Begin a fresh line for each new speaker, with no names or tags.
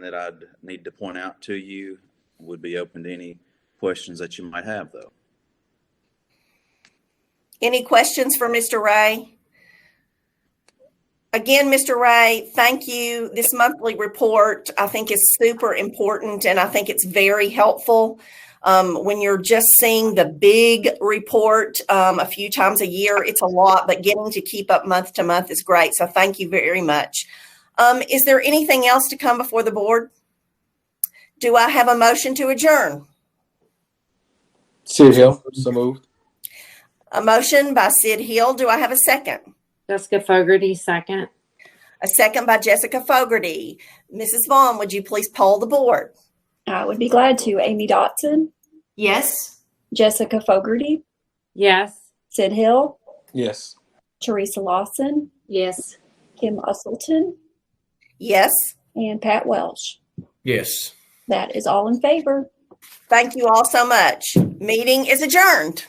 that I'd need to point out to you. Would be open to any questions that you might have, though.
Any questions for Mr. Ray? Again, Mr. Ray, thank you. This monthly report, I think, is super important and I think it's very helpful. Um, when you're just seeing the big report um, a few times a year, it's a lot, but getting to keep up month to month is great. So thank you very much. Um, is there anything else to come before the board? Do I have a motion to adjourn?
Sid Hill, so moved.
A motion by Sid Hill. Do I have a second?
Jessica Fogarty, second.
A second by Jessica Fogarty. Mrs. Vaughn, would you please poll the board?
I would be glad to. Amy Dotson,
Yes.
Jessica Fogarty,
Yes.
Sid Hill,
Yes.
Teresa Lawson,
Yes.
Kim Usselton,
Yes.
and Pat Welsh.
Yes.
That is all in favor.
Thank you all so much. Meeting is adjourned.